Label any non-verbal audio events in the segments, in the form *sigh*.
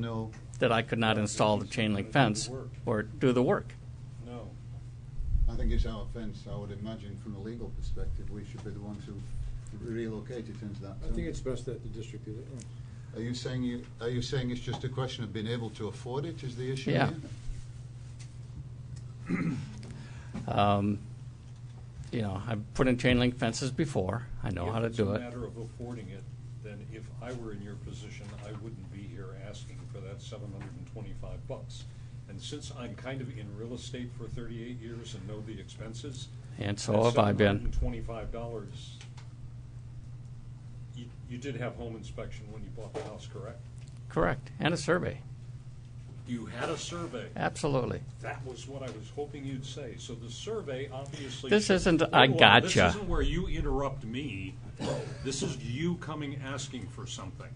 No, that I could not install the chain link fence or do the work. No. I think it's our fence, I would imagine from a legal perspective, we should be the ones who relocate it into that I think zone. it's best that the district did it. Are you saying you, are you saying it's just a question of being able to afford it is the issue Yeah. here? Um, You know, I've put in chain link fences before, I know how to do If it's a it. matter of affording it, then if I were in your position, I wouldn't be here asking for that seven hundred and twenty-five bucks. And since I'm kind of in real estate for thirty-eight years and know the expenses. And so have I been. Seven hundred and twenty-five dollars. You, you did have home inspection when you bought the house, correct? Correct, and a survey, You had a survey. absolutely. That was what I was hoping you'd say. So the survey obviously. This isn't a Hold on. gotcha. This isn't where you interrupt me. This is you coming asking for something.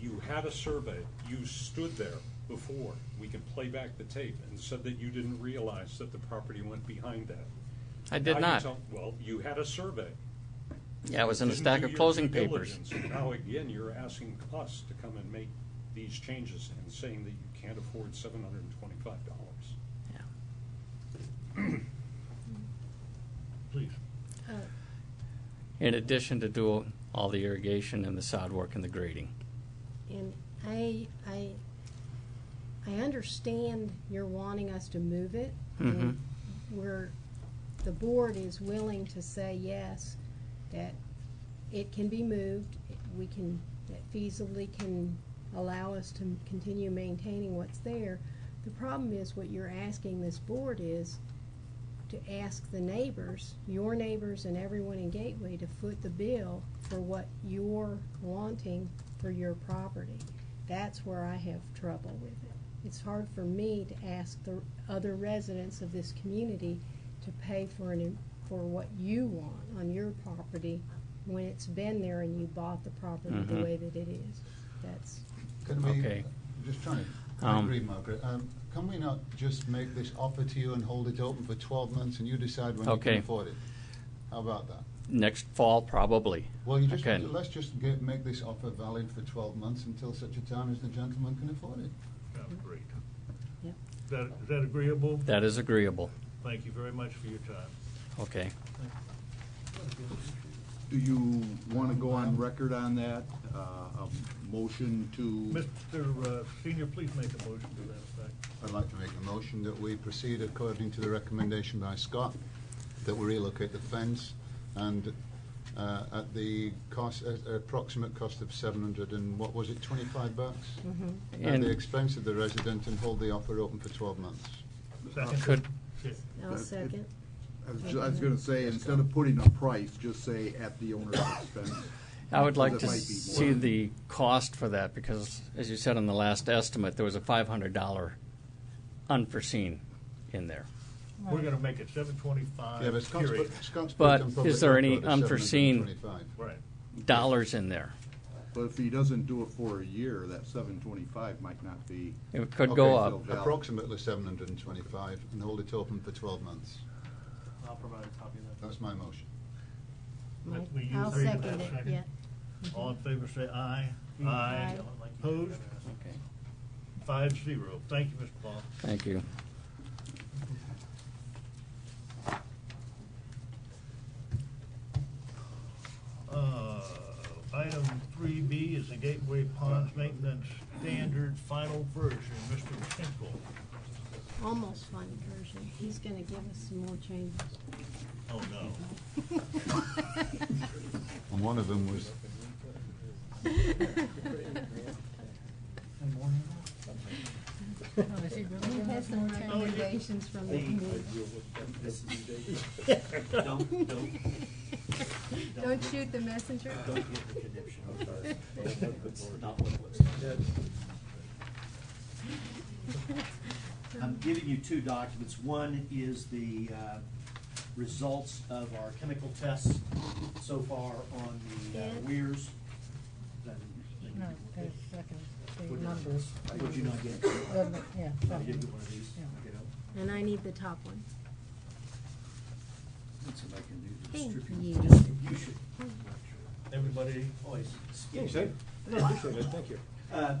You had a survey. You stood there before. We can play back the tape and said that you didn't realize that the property went behind that. I did Now you not. tell- Well, you had a survey. Yeah, it was in a Didn't stack do of your closing due papers. diligence. And Now, again, you're asking us to come and make these changes and saying that you can't afford seven hundred and twenty-five dollars. Please. Uh, In addition to do all the irrigation and the sod work and the grading. And I, I, I understand you're wanting us to move it. Mhm. and We're, the board is willing to say yes, that it can be moved, we can, that feasibly can allow us to continue maintaining what's there. The problem is what you're asking this board is to ask the neighbors, your neighbors and everyone in Gateway to foot the bill for what you're wanting for your property. That's where I have trouble with it. It's hard for me to ask the other residents of this community to pay for an, for what you want on your property when it's been there and you bought the property the Mhm. way that it is. That's, Can we, Okay. I'm just trying, to- I Um, agree, Margaret, um, can we not just make this offer to you and hold it open for twelve months and you decide when you can Okay. afford it? How about that? Next fall, probably. Well, you just, Okay. let's just get, make this offer valid for twelve months until such a time as the gentleman can afford it. Great. Yep. Is that, is that agreeable? That is agreeable, Thank you very much for your time. okay. Do you want to go on record on that, Uh, a motion to, Mr. uh, Senior, please make a motion to that effect. I'd like to make a motion that we proceed according to the recommendation by Scott, that we relocate the fence and uh, at the cost, uh, approximate cost of seven hundred and, what was it, twenty-five bucks? At Mm-hmm. And- the expense of the resident and hold the offer open for twelve months. Second. Could, Yeah. I'll That's it. second. I was ju- I was going to say, instead of putting a price, just say at the owner's expense. *laughs* I would like That to might be see more. the cost for that, because as you said on the last estimate, there was a five hundred dollar unforeseen in there. We're gonna make it seven twenty-five, Yeah, but Scott's put- period. Scott's put But on is public there any record at unforeseen- 725. Right. Dollars in there. But if he doesn't do it for a year, that seven twenty-five might not be. It could go Okay, up. so- Approximately seven hundred and twenty-five and hold it open for twelve months. I'll provide a copy of That's my motion. that. We use I'll three for second it, that yeah. All in favor, say aye. Aye. Opposed? Five zero. Thank you, Mr. Paul. Thank you. Uh, Item three B is the Gateway Ponds Maintenance Standard Final Version, Mr. Tinkle. Almost final version. He's gonna give us some more changes. Oh, no. And one of them was He has some recommendations from the committee. *laughs* Don't shoot the messenger. *laughs* I'm giving you two documents. One is the uh, results of our chemical tests so far on the uh, Yeah. weirs. No, there's second, the numbers. Would you not get? Well, yeah, I that didn't one. get one of these. Yeah. Okay, no. And I need the top one. Let's see if I can do the Thank distribu- you. distribution. Everybody Always. Thanks, eh? No, appreciate it, thank you. Uh,